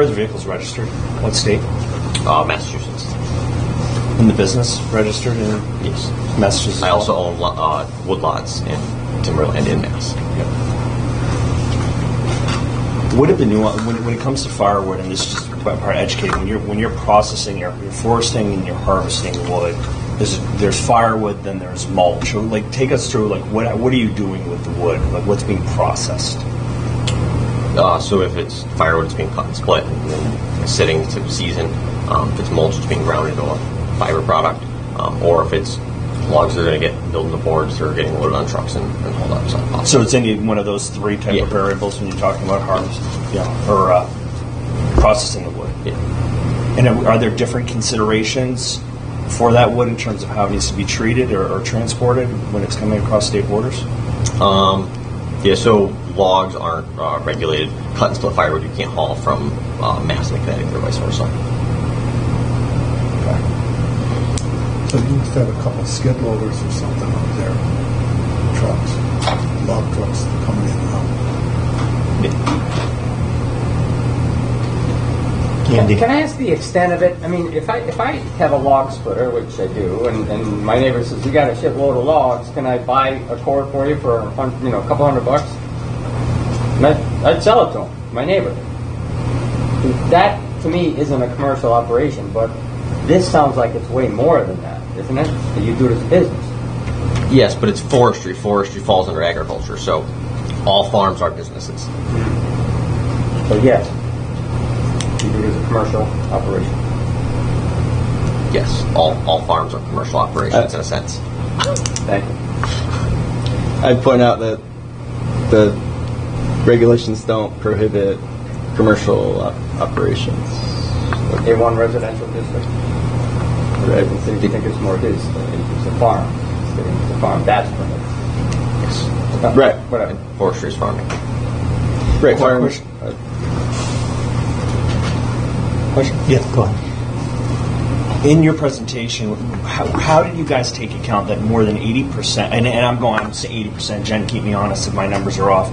are the vehicles registered? What state? Uh, Massachusetts. In the business registered in yes. Massachusetts? I also own lo- uh, woodlots in Timberland in Mass. What are the nuance when, when it comes to firewood? And this is just about part of educating. When you're when you're processing, you're, you're foresting and you're harvesting wood. There's there's firewood, then there's mulch. Or like take us through like what what are you doing with the wood? Like what's being processed? Uh, so if it's firewood, it's being cut and split and then sitting to season. Um, if it's mulch, it's being ground into a fiber product. Um, or if it's logs, they're going to get built into boards or getting loaded on trucks and, and hauled up. So, So it's any one of those three type Yeah. of variables when you're talking about harvest, yeah, or uh, processing of wood. yeah. And are are there different considerations for that wood in terms of how it needs to be treated or, or transported when it's coming across state borders? Um, yeah, so logs aren't uh, regulated. Cut and split firewood, you can't haul from uh, Mass to Connecticut or vice versa. So you used to have a couple skid loaders or something up there, trucks, log trucks coming in and out. Andy. Can I ask the extent of it? I mean, if I, if I have a log splitter, which I do, and, and my neighbor says, you got a shitload of logs, can I buy a cord for you for, a hun- you know, a couple hundred bucks? And I'd, I'd sell it to him, my neighbor. That, to me, isn't a commercial operation, but this sounds like it's way more than that, isn't it? That you do it as a business. Yes, but it's forestry. Forestry falls under agriculture, so all farms are businesses. So yes, you do it as a commercial operation. Yes, all, all farms are commercial operations in a sense. Thank you. I'd point out that the regulations don't prohibit commercial op- operations. A1 residential district. Right. The city think it's more his, uh, it's a farm, it's a farm, that's permitted. Yes, Right. Whatever. forestry is farming. Right. Quick farm- question. Question? Yeah, go ahead. In your presentation, how, how did you guys take account that more than 80%, and, and I'm going, I'm saying 80%, Jen, keep me honest if my numbers are off,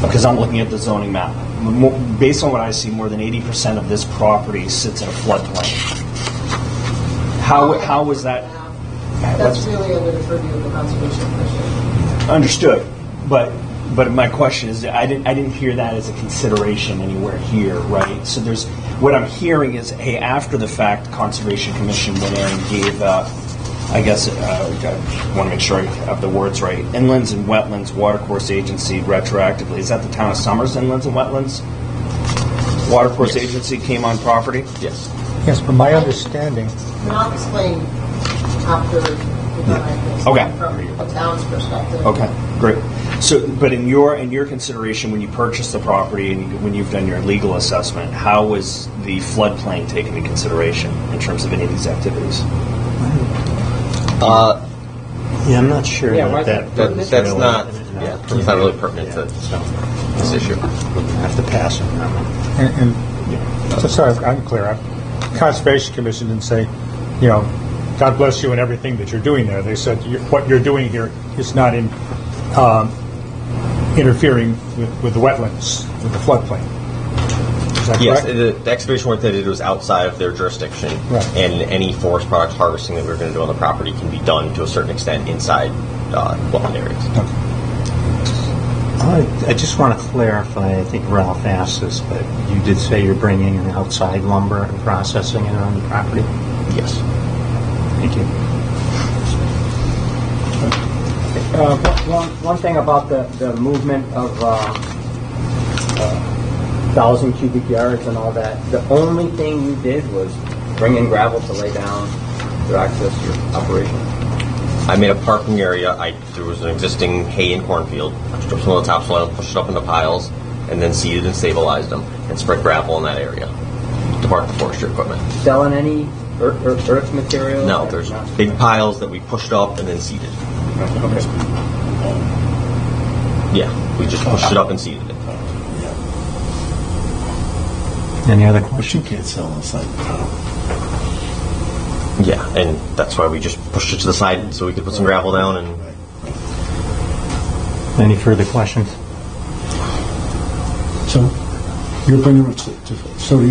because I'm looking at the zoning map. Mo- Based on what I see, more than 80% of this property sits in a floodplain. How, how was that? That's really under the purview of the Conservation Commission. Understood, but, but my question is, I didn't, I didn't hear that as a consideration anywhere here, right? So there's, what I'm hearing is, hey, after the fact, Conservation Commission went in and gave, uh, I guess, uh, I want to make sure I have the words right, Inlands and Wetlands Water Course Agency retroactively, is that the town of Summers Inlands and Wetlands? Water Course Agency came on property? Yes. Yes, but my understanding, Not explained after the fact. Okay. From a town's perspective. Okay, great. So, but in your, in your consideration, when you purchased the property and when you've done your legal assessment, how was the floodplain taken into consideration in terms of any of these activities? Yeah, I'm not sure Yeah, why- about that. That, pertinent that's really. not, yeah, that's not really pertinent to this issue. I have to pass on that one. and, and, so sorry, I'm clear, I'm- Conservation Commission didn't say, you know, God bless you and everything that you're doing there. They said, "You- what you're doing here is not in, um, interfering with, with the wetlands, with the floodplain. Is that Yes, correct? the, the excavation work that they did was outside of their jurisdiction, Right. and any forest product harvesting that we we're going to do on the property can be done to a certain extent inside uh, wetland areas. I I just want to clarify, I think Ralph asked this, but you did say you're bringing in outside lumber and processing it on the property? Yes. Thank you. Uh, one, one thing about the, the movement of uh, uh, thousand cubic yards and all that, the only thing you did was bring in gravel to lay down to access your operation. I made a parking area. I there was an existing hay and cornfield. I stripped some of the topsoil, pushed it up into piles, and then seeded and stabilized them, and spread gravel in that area to park the forestry equipment. Selling any earth, earth, earth material? No, there's big piles that we pushed up and then seeded. Yeah, we just pushed it up and seeded it. Any other But you questions? can't sell inside the town. Yeah, and that's why we just pushed it to the side so we could put some gravel down and Any further questions? So You're bringing it to, to, so